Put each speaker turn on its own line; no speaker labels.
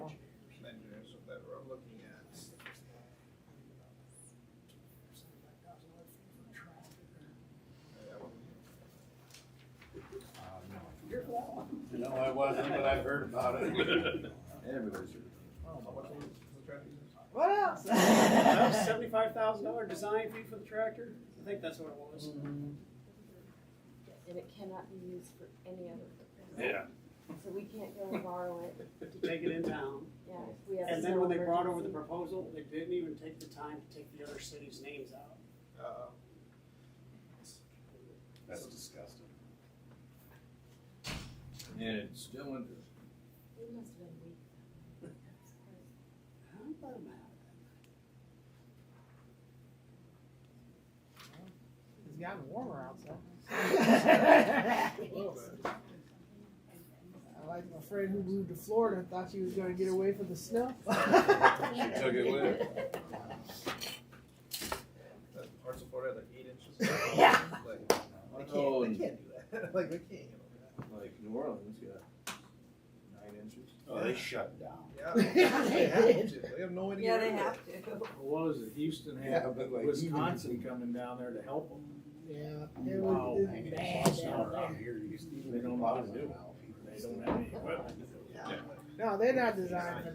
wasn't, but I've heard about it.
Everybody's.
What else?
Seventy-five thousand dollar design fee for the tractor? I think that's what it was.
And it cannot be used for any other purpose.
Yeah.
So we can't go and borrow it,
To take it in town.
yeah, if we have.
And then
some
when they brought over the
emergency.
proposal, they didn't even take the time to take the other cities' names out.
That's disgusting.
And it's still in,
It must have been weak.
How about that?
It's gotten warmer outside. I like my friend who moved to Florida, thought she was gonna get away from the snow.
she took it with her.
That's parts of Florida that are eight inches.
Yeah.
Like,
I
they
told,
can't, they can't do that. Like, they can't handle that.
like, New Orleans got nine inches.
Oh, they shut down.
Yeah, they have to. They have no way to
Yeah,
get
they
rid of
have
it.
to.
What was it, Houston
Yeah,
had
but like.
Wisconsin coming down there to help them.
Yeah. it
Wow.
was-
Hanging
it's
in
bad
snow
down
around
there.
here, you used to
They
even
don't
know how to
know.
do.
They don't have any equipment.
No, they're not designed for